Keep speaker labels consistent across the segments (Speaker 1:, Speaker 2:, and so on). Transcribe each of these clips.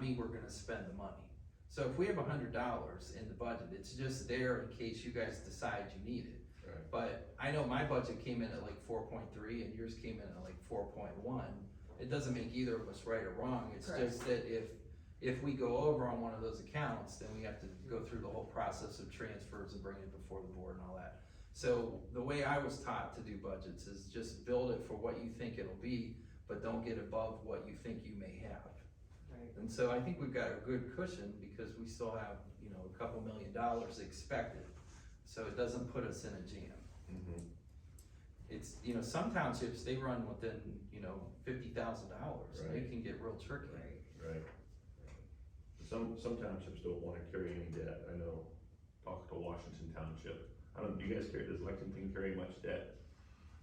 Speaker 1: mean we're gonna spend the money. So if we have a hundred dollars in the budget, it's just there in case you guys decide you need it.
Speaker 2: Right.
Speaker 1: But I know my budget came in at like four point three and yours came in at like four point one. It doesn't make either of us right or wrong, it's
Speaker 3: Correct.
Speaker 1: just that if, if we go over on one of those accounts, then we have to go through the whole process of transfers and bring it before the board and all that. So the way I was taught to do budgets is just build it for what you think it'll be, but don't get above what you think you may have.
Speaker 3: Right.
Speaker 1: And so I think we've got a good cushion because we still have, you know, a couple million dollars expected. So it doesn't put us in a jam.
Speaker 2: Mhm.
Speaker 1: It's, you know, some townships, they run within, you know, fifty thousand dollars. They
Speaker 2: Right.
Speaker 1: can get real tricky.
Speaker 2: Right. Some, some townships don't wanna carry any debt, I know, talk to Washington Township, I don't, do you guys carry, does Lexington carry much debt?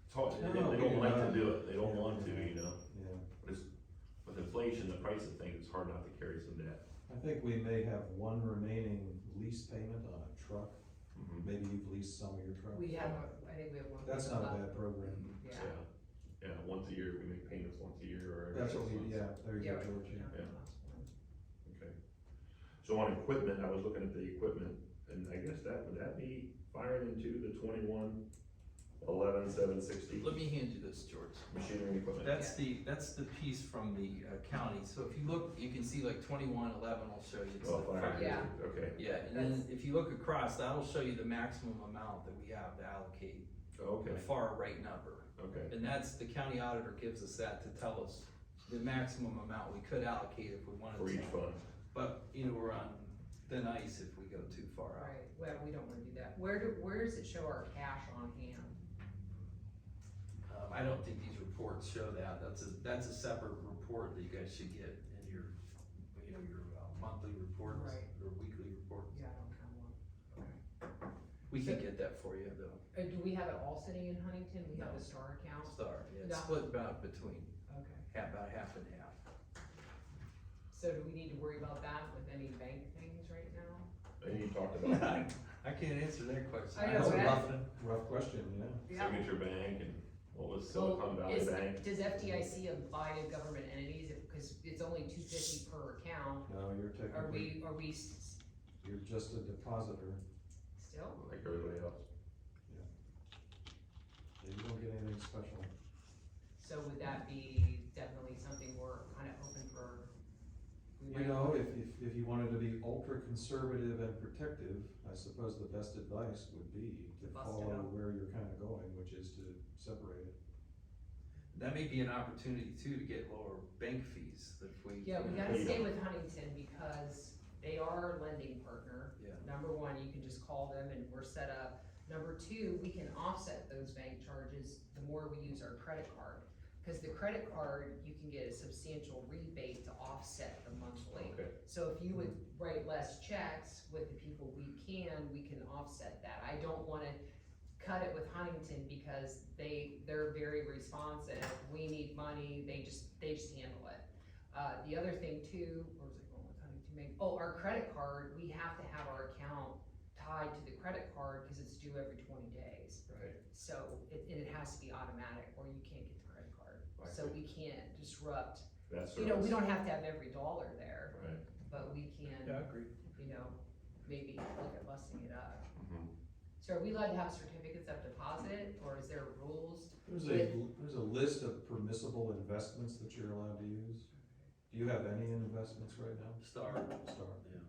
Speaker 2: It's hard, they,
Speaker 1: No,
Speaker 2: they
Speaker 1: we do
Speaker 2: don't like
Speaker 1: not.
Speaker 2: to do it, they don't want to, you know,
Speaker 4: Yeah,
Speaker 2: but it's, with inflation, the price of things, it's hard not to carry some debt.
Speaker 4: I think we may have one remaining lease payment on a truck,
Speaker 2: Mm-hmm.
Speaker 4: maybe you've leased some of your trucks.
Speaker 3: We have, I think we have one.
Speaker 4: That's not a
Speaker 3: left.
Speaker 4: bad program,
Speaker 3: Yeah.
Speaker 2: Yeah, yeah, once a year, we make payments once a year or. every
Speaker 4: that's
Speaker 2: six
Speaker 4: what we,
Speaker 2: months.
Speaker 4: yeah, there you
Speaker 3: Yeah,
Speaker 4: go,
Speaker 3: right.
Speaker 4: George, yeah.
Speaker 2: Yeah. Okay. So on equipment, I was looking at the equipment, and I guess that, would that be firing into the twenty-one, eleven, seven sixty
Speaker 1: Let me hand you this, George.
Speaker 2: machinery and equipment?
Speaker 1: That's the, that's the piece from the uh, county. So if you look, you can see like twenty-one eleven will show you. it's
Speaker 2: Oh,
Speaker 1: the
Speaker 2: fire,
Speaker 1: fire.
Speaker 3: Yeah.
Speaker 2: okay,
Speaker 1: Yeah, and then if you look across, that'll show you the maximum amount that we have to allocate,
Speaker 2: okay,
Speaker 1: the far right number.
Speaker 2: okay,
Speaker 1: And that's, the county auditor gives us that to tell us the maximum amount we could allocate if we
Speaker 2: for
Speaker 1: wanted
Speaker 2: each
Speaker 1: to.
Speaker 2: fund.
Speaker 1: But, you know, we're on thin ice if we go too far
Speaker 3: Right,
Speaker 1: out.
Speaker 3: well, we don't wanna do that. Where do, where does it show our cash on hand?
Speaker 1: Um, I don't think these reports show that, that's a, that's a separate report that you guys should get in your, you know, your uh, monthly reports
Speaker 3: Right.
Speaker 1: or weekly reports.
Speaker 3: Yeah, I don't have one.
Speaker 1: We can get that for you though,
Speaker 3: Uh, do we have it all sitting in Huntington? We have
Speaker 1: No.
Speaker 3: a star account?
Speaker 1: Star, yeah, it's
Speaker 3: Yeah.
Speaker 1: split about between,
Speaker 3: Okay.
Speaker 1: half, about half and half.
Speaker 3: So do we need to worry about that with any bank things right now?
Speaker 2: And you talked about
Speaker 1: I can't answer that question.
Speaker 3: I
Speaker 1: I
Speaker 3: know,
Speaker 1: don't
Speaker 3: right?
Speaker 1: love them.
Speaker 4: Rough question, yeah.
Speaker 2: Signature Bank and what was
Speaker 3: Well,
Speaker 2: Silicon Valley
Speaker 3: is-
Speaker 2: Bank?
Speaker 3: Does FDIC apply to government entities? Cause it's only two fifty per account.
Speaker 4: No, you're
Speaker 3: Are
Speaker 4: technically,
Speaker 3: we, are we s-
Speaker 4: you're just a depositor,
Speaker 3: still?
Speaker 2: Like everybody else.
Speaker 4: you don't get anything special.
Speaker 3: So would that be definitely something we're kind of open for? we
Speaker 4: You
Speaker 3: might-
Speaker 4: know, if, if, if you wanted to be ultra conservative and protective, I suppose the best advice would be to
Speaker 3: Bust it
Speaker 4: follow
Speaker 3: out.
Speaker 4: where you're kinda going, which is to separate it.
Speaker 1: That may be an opportunity too to get lower bank fees if we.
Speaker 3: Yeah, we
Speaker 1: you know,
Speaker 3: gotta stay with Huntington because they are our lending partner.
Speaker 1: Yeah.
Speaker 3: Number one, you can just call them and we're set up. Number two, we can offset those bank charges the more we use our credit card. Cause the credit card, you can get a substantial rebate to offset the monthly.
Speaker 2: Okay,
Speaker 3: So if you would write less checks with the people we can, we can offset that. I don't wanna cut it with Huntington because they, they're very responsive. We need money, they just, they just handle it. Uh, the other thing too, where was I going with Huntington Bank? Oh, our credit card, we have to have our account tied to the credit card because it's due every twenty days.
Speaker 2: right.
Speaker 3: So it, and it has to be automatic or you can't get the credit card.
Speaker 2: I
Speaker 3: So
Speaker 2: see.
Speaker 3: we can't disrupt,
Speaker 2: That's.
Speaker 3: you know, we don't have to have every dollar there
Speaker 2: Right.
Speaker 3: but we
Speaker 1: Yeah, I
Speaker 3: can,
Speaker 1: agree.
Speaker 3: you know, maybe look at busting it up.
Speaker 2: Mhm.
Speaker 3: So are we allowed to have certificates of deposit, or is there rules?
Speaker 4: There's a, there's a list of permissible investments that you're allowed to use. Do you have any investments right now?
Speaker 1: Star,
Speaker 4: Star.
Speaker 1: yeah.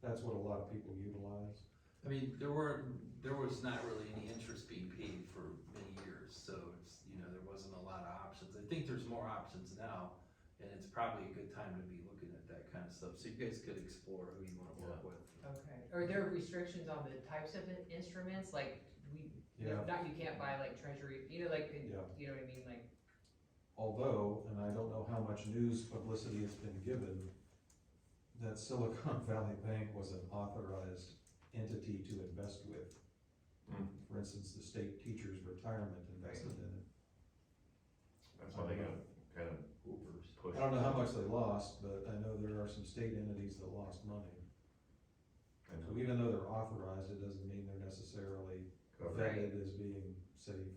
Speaker 4: That's what a lot of people utilize.
Speaker 1: I mean, there were, there was not really any interest being paid for many years, so it's, you know, there wasn't a lot of options. I think there's more options now, and it's probably a good time to be looking at that kind of stuff, so you guys could explore who you wanna work with.
Speaker 3: Okay. Are there restrictions on the types of in- instruments, like, we,
Speaker 4: Yeah,
Speaker 3: not, you can't buy like treasury, you know, like, in-
Speaker 4: Yeah.
Speaker 3: you know what I mean, like,
Speaker 4: although, and I don't know how much news publicity has been given, that Silicon Valley Bank was an authorized entity to invest with.
Speaker 2: Hmm.
Speaker 4: For instance, the state teachers retirement invested in it.
Speaker 2: That's why they got kind of
Speaker 1: Hoopers.
Speaker 2: pushed.
Speaker 4: I don't know how much they lost, but I know there are some state entities that lost money.
Speaker 2: I know.
Speaker 4: So even though they're authorized, it doesn't mean they're necessarily
Speaker 2: Covered.
Speaker 4: vetted as being safe.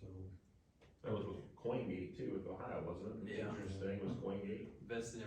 Speaker 4: So,
Speaker 2: That was with CoinGate too, with Ohio, wasn't it?
Speaker 1: Yeah.
Speaker 2: Interesting, was CoinGate?
Speaker 1: Invested in